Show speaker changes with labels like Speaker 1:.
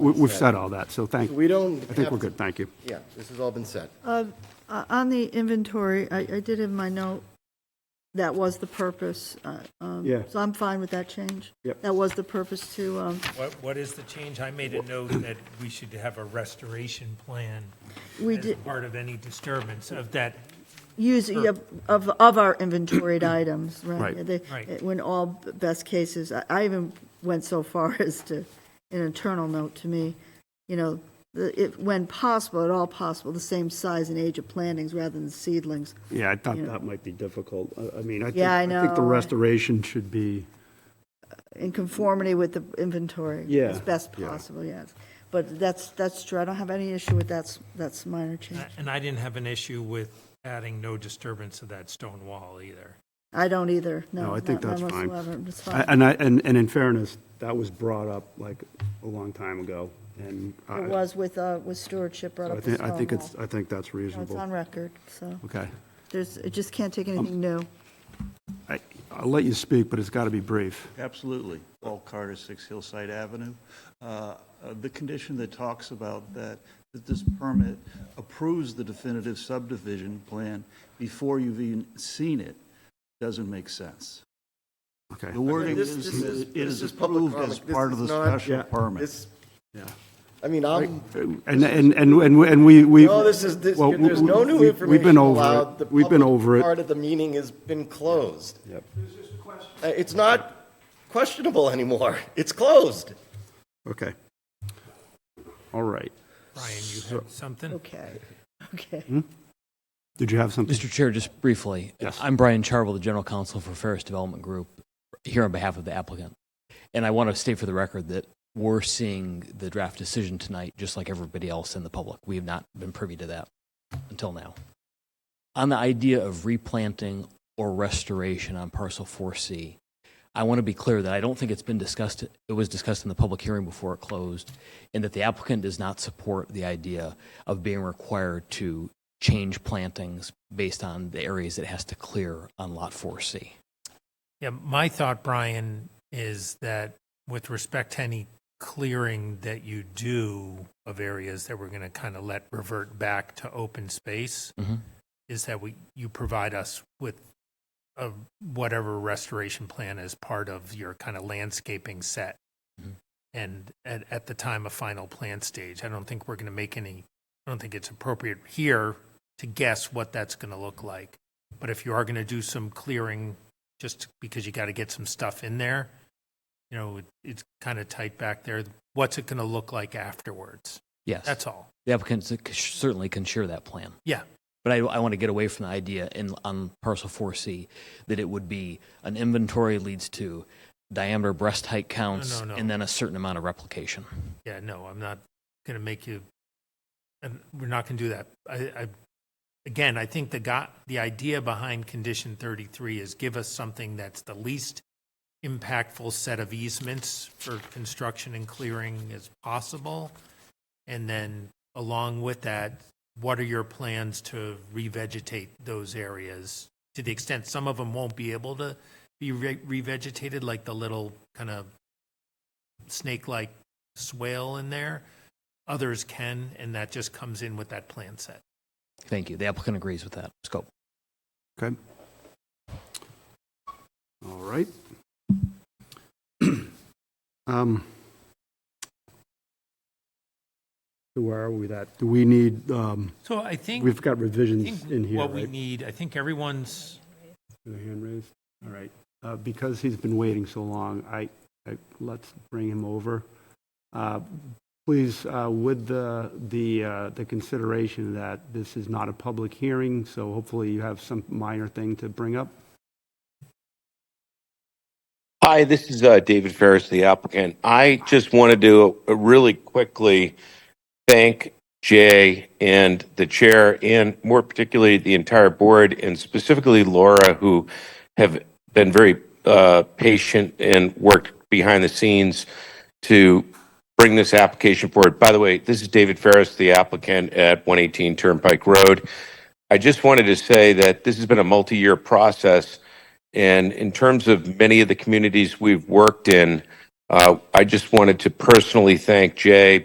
Speaker 1: We- We've said all that, so thank,
Speaker 2: We don't.
Speaker 1: I think we're
Speaker 2: have to-
Speaker 1: good, thank you.
Speaker 2: Yeah, this has all been said.
Speaker 3: Uh, On the inventory, I, I did in my note, that was the purpose. uh, um,
Speaker 1: Yeah.
Speaker 3: So I'm fine with that change.
Speaker 1: Yep.
Speaker 3: That was the purpose to, um,
Speaker 4: What, what is the change? I made a note that we should have a restoration plan
Speaker 3: we
Speaker 4: as
Speaker 3: did,
Speaker 4: part of any disturbance of that.
Speaker 3: use of, of of our inventoried items, right?
Speaker 1: Right.
Speaker 3: They-
Speaker 4: Right.
Speaker 3: When all best cases, I- I even went so far as to, an internal note to me, you know, the- if, when possible, at all possible, the same size and age of plantings rather than seedlings.
Speaker 1: Yeah, I thought
Speaker 3: Yeah.
Speaker 1: that might be difficult. I- I mean, I think,
Speaker 3: Yeah, I
Speaker 1: I think the
Speaker 3: know.
Speaker 1: restoration should be,
Speaker 3: in conformity with the inventory.
Speaker 1: Yeah.
Speaker 3: As best
Speaker 1: Yeah.
Speaker 3: possible, yes. But that's, that's true, I don't have any issue with that's, that's minor change.
Speaker 4: And I didn't have an issue with adding no disturbance to that stone wall either.
Speaker 3: I don't either, no.
Speaker 1: no, I think
Speaker 3: not-
Speaker 1: that's
Speaker 3: not
Speaker 1: fine.
Speaker 3: whatsoever. It's
Speaker 1: I-
Speaker 3: fine.
Speaker 1: And I, and, and in fairness, that was brought up like a long time ago, and I,
Speaker 3: It was with, uh, with stewardship brought
Speaker 1: so I
Speaker 3: up the
Speaker 1: think,
Speaker 3: stone
Speaker 1: I
Speaker 3: wall.
Speaker 1: think it's, I think that's
Speaker 3: No, It's
Speaker 1: reasonable. Um,
Speaker 3: on record, so
Speaker 1: Okay.
Speaker 3: there's, it just can't take anything new.
Speaker 1: I, I'll let you speak, but it's got to be brief.
Speaker 5: Absolutely. Paul Carter, 6 Hillside Avenue. Uh, uh, The condition that talks about that, that this permit approves the definitive subdivision plan before you've even seen it, doesn't make sense.
Speaker 1: Okay,
Speaker 5: The wording
Speaker 2: This-
Speaker 5: is,
Speaker 2: this is-
Speaker 5: it is
Speaker 2: this is public
Speaker 5: approved as
Speaker 2: comment. This
Speaker 5: part of
Speaker 2: is
Speaker 5: the
Speaker 2: not-
Speaker 5: special
Speaker 1: Yeah.
Speaker 5: permit.
Speaker 2: This,
Speaker 1: yeah.
Speaker 2: I mean, I'm,
Speaker 1: And, and, and, and we- and we, we.
Speaker 2: no, this is, this-
Speaker 1: well,
Speaker 2: there's no
Speaker 1: we-
Speaker 2: new
Speaker 1: we- We've
Speaker 2: information
Speaker 1: been over
Speaker 2: allowed. The
Speaker 1: it, we've been
Speaker 2: public
Speaker 1: over it.
Speaker 2: Part of the meeting has been closed.
Speaker 1: Yep.
Speaker 2: Uh, It's not questionable anymore. It's closed.
Speaker 1: Okay. All right.
Speaker 4: Brian, you had something?
Speaker 3: Okay, okay.
Speaker 1: Did you have something?
Speaker 6: Mr. Chair, just briefly.
Speaker 1: Yes.
Speaker 6: I'm Brian Charvel, the General Counsel for Ferris Development Group, here on behalf of the applicant. And I want to state for the record that we're seeing the draft decision tonight, just like everybody else in the public. We have not been privy to that until now. On the idea of replanting or restoration on parcel 4C, I want to be clear that I don't think it's been discussed, it was discussed in the public hearing before it closed, and that the applicant does not support the idea of being required to change plantings based on the areas it has to clear on Lot 4C.
Speaker 4: Yeah, my thought, Brian, is that with respect to any clearing that you do of areas that we're going to kind of let revert back to open space, is that we, you provide us with a, whatever restoration plan as part of your kind of landscaping set. And at, at the time of final plan stage, I don't think we're going to make any, I don't think it's appropriate here to guess what that's going to look like. But if you are going to do some clearing, just because you got to get some stuff in there, you know, it- it's kind of tight back there. What's it going to look like afterwards?
Speaker 6: Yes.
Speaker 4: That's all.
Speaker 6: The applicant c- certainly can share that plan.
Speaker 4: Yeah.
Speaker 6: But I, I want to get away from the idea in, on parcel 4C that it would be an inventory leads to diameter breast height counts
Speaker 4: no, no.
Speaker 6: and then a certain amount of replication.
Speaker 4: Yeah, no, I'm not going to make you, and we're not going to do that. I, I, again, I think the got, the idea behind condition 33 is give us something that's the least impactful set of easements for construction and clearing as possible. And then along with that, what are your plans to revegetate those areas? To the extent some of them won't be able to be re- revegetated, like the little kind of snake-like swale in there. Others can, and that just comes in with that plan set.
Speaker 6: Thank you. The applicant agrees with that scope.
Speaker 1: Okay. All right. Um, So where are we at? Do we need, um,
Speaker 4: So I think,
Speaker 1: we've got
Speaker 4: I
Speaker 1: revisions in
Speaker 4: think
Speaker 1: here,
Speaker 4: what we
Speaker 1: right?
Speaker 4: need, I think everyone's,
Speaker 1: Your hand raised? All right. Uh, Because he's been waiting so long, I, I- let's bring him over. Uh, Please, uh, with the, the, uh, the consideration that this is not a public hearing, so hopefully you have some minor thing to bring up.
Speaker 7: Hi, this is uh, David Ferris, the applicant. I just wanted to uh, really quickly thank Jay and the chair, and more particularly the entire board, and specifically Laura, who have been very uh, patient and worked behind the scenes to bring this application forward. By the way, this is David Ferris, the applicant at 118 Turnpike Road. I just wanted to say that this has been a multi-year process, and in terms of many of the communities we've worked in, uh, I just wanted to personally thank Jay,